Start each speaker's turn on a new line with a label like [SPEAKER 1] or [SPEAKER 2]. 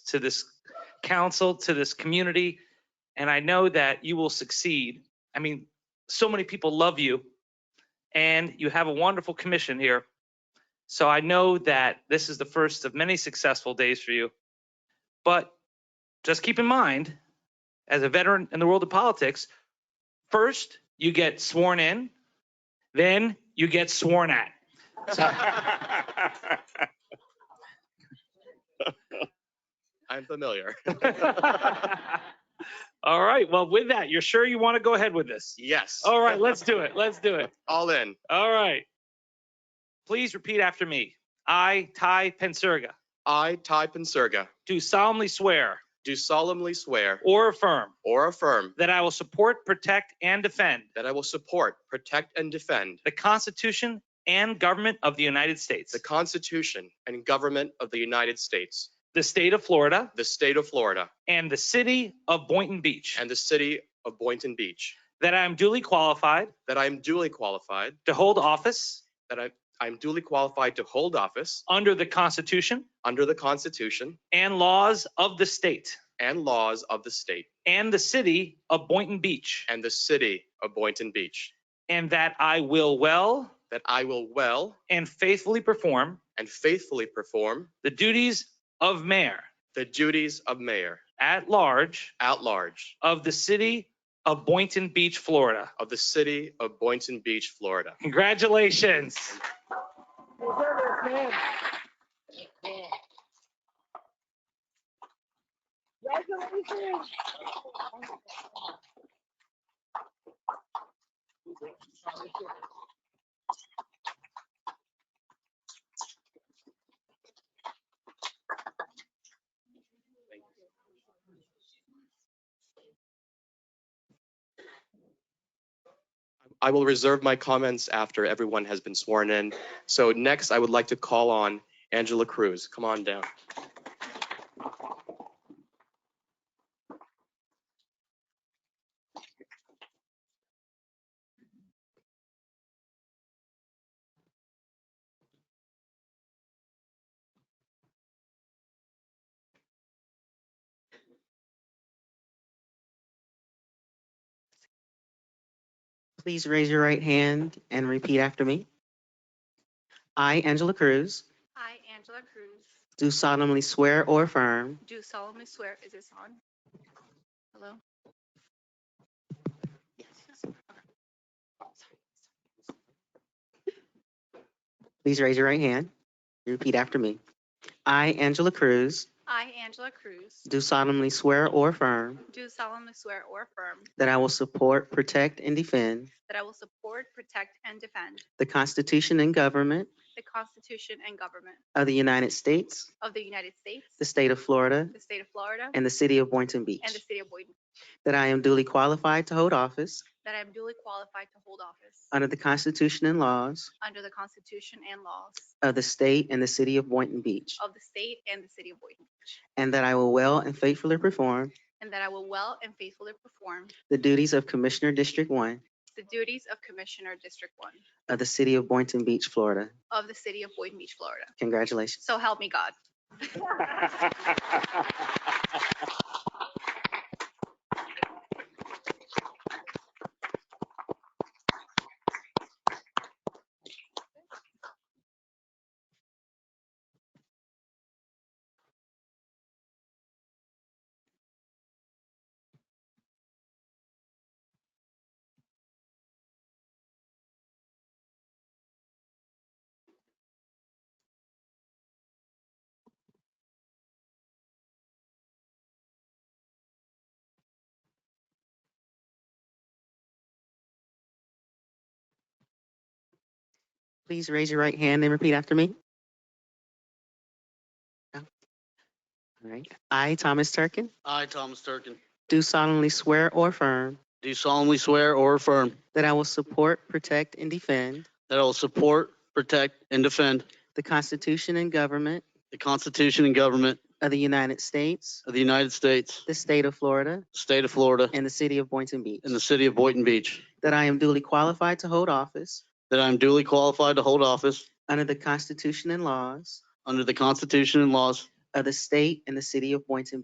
[SPEAKER 1] to this council, to this community. And I know that you will succeed. I mean, so many people love you and you have a wonderful commission here. So I know that this is the first of many successful days for you. But just keep in mind, as a veteran in the world of politics, first you get sworn in, then you get sworn at. So-
[SPEAKER 2] I'm familiar.
[SPEAKER 1] All right. Well, with that, you're sure you want to go ahead with this?
[SPEAKER 2] Yes.
[SPEAKER 1] All right, let's do it. Let's do it.
[SPEAKER 2] All in.
[SPEAKER 1] All right. Please repeat after me. I, Ty Pensurga,
[SPEAKER 2] I, Ty Pensurga,
[SPEAKER 1] do solemnly swear
[SPEAKER 2] do solemnly swear
[SPEAKER 1] or affirm
[SPEAKER 2] or affirm
[SPEAKER 1] that I will support, protect, and defend
[SPEAKER 2] that I will support, protect, and defend
[SPEAKER 1] the Constitution and government of the United States,
[SPEAKER 2] the Constitution and government of the United States,
[SPEAKER 1] the state of Florida,
[SPEAKER 2] the state of Florida,
[SPEAKER 1] and the city of Boynton Beach,
[SPEAKER 2] and the city of Boynton Beach,
[SPEAKER 1] that I am duly qualified
[SPEAKER 2] that I am duly qualified,
[SPEAKER 1] to hold office
[SPEAKER 2] that I I am duly qualified to hold office
[SPEAKER 1] under the Constitution
[SPEAKER 2] under the Constitution
[SPEAKER 1] and laws of the state
[SPEAKER 2] and laws of the state
[SPEAKER 1] and the city of Boynton Beach,
[SPEAKER 2] and the city of Boynton Beach,
[SPEAKER 1] and that I will well
[SPEAKER 2] that I will well
[SPEAKER 1] and faithfully perform
[SPEAKER 2] and faithfully perform
[SPEAKER 1] the duties of mayor
[SPEAKER 2] the duties of mayor
[SPEAKER 1] at large
[SPEAKER 2] at large
[SPEAKER 1] of the city of Boynton Beach, Florida.
[SPEAKER 2] of the city of Boynton Beach, Florida.
[SPEAKER 1] Congratulations.
[SPEAKER 3] Congratulations.
[SPEAKER 2] I will reserve my comments after everyone has been sworn in. So next, I would like to call on Angela Cruz. Come on down.
[SPEAKER 4] Please raise your right hand and repeat after me. I, Angela Cruz,
[SPEAKER 5] I, Angela Cruz,
[SPEAKER 4] do solemnly swear or affirm
[SPEAKER 5] do solemnly swear, is this on? Hello?
[SPEAKER 4] Please raise your right hand. Repeat after me. I, Angela Cruz,
[SPEAKER 5] I, Angela Cruz,
[SPEAKER 4] do solemnly swear or affirm
[SPEAKER 5] do solemnly swear or affirm
[SPEAKER 4] that I will support, protect, and defend
[SPEAKER 5] that I will support, protect, and defend
[SPEAKER 4] the Constitution and government
[SPEAKER 5] the Constitution and government
[SPEAKER 4] of the United States,
[SPEAKER 5] of the United States,
[SPEAKER 4] the state of Florida,
[SPEAKER 5] the state of Florida,
[SPEAKER 4] and the city of Boynton Beach,
[SPEAKER 5] and the city of Boynton,
[SPEAKER 4] that I am duly qualified to hold office
[SPEAKER 5] that I am duly qualified to hold office
[SPEAKER 4] under the Constitution and laws
[SPEAKER 5] under the Constitution and laws
[SPEAKER 4] of the state and the city of Boynton Beach,
[SPEAKER 5] of the state and the city of Boynton Beach,
[SPEAKER 4] and that I will well and faithfully perform
[SPEAKER 5] and that I will well and faithfully perform
[SPEAKER 4] The duties of Commissioner District One
[SPEAKER 5] the duties of Commissioner District One
[SPEAKER 4] of the City of Boynton Beach, Florida.
[SPEAKER 5] of the city of Boynton Beach, Florida.
[SPEAKER 4] Congratulations.
[SPEAKER 5] So help me God.
[SPEAKER 4] Please raise your right hand and repeat after me. No? All right. I, Thomas Turkin,
[SPEAKER 6] I, Thomas Turkin,
[SPEAKER 4] do solemnly swear or affirm
[SPEAKER 6] do solemnly swear or affirm
[SPEAKER 4] that I will support, protect, and defend
[SPEAKER 6] that I will support, protect, and defend
[SPEAKER 4] the Constitution and government
[SPEAKER 6] the Constitution and government
[SPEAKER 4] of the United States,
[SPEAKER 6] of the United States,
[SPEAKER 4] the state of Florida,
[SPEAKER 6] the state of Florida,
[SPEAKER 4] and the city of Boynton Beach,
[SPEAKER 6] and the city of Boynton Beach,
[SPEAKER 4] that I am duly qualified to hold office
[SPEAKER 6] that I am duly qualified to hold office
[SPEAKER 4] under the Constitution and laws
[SPEAKER 6] under the Constitution and laws
[SPEAKER 4] of the state and the city of Boynton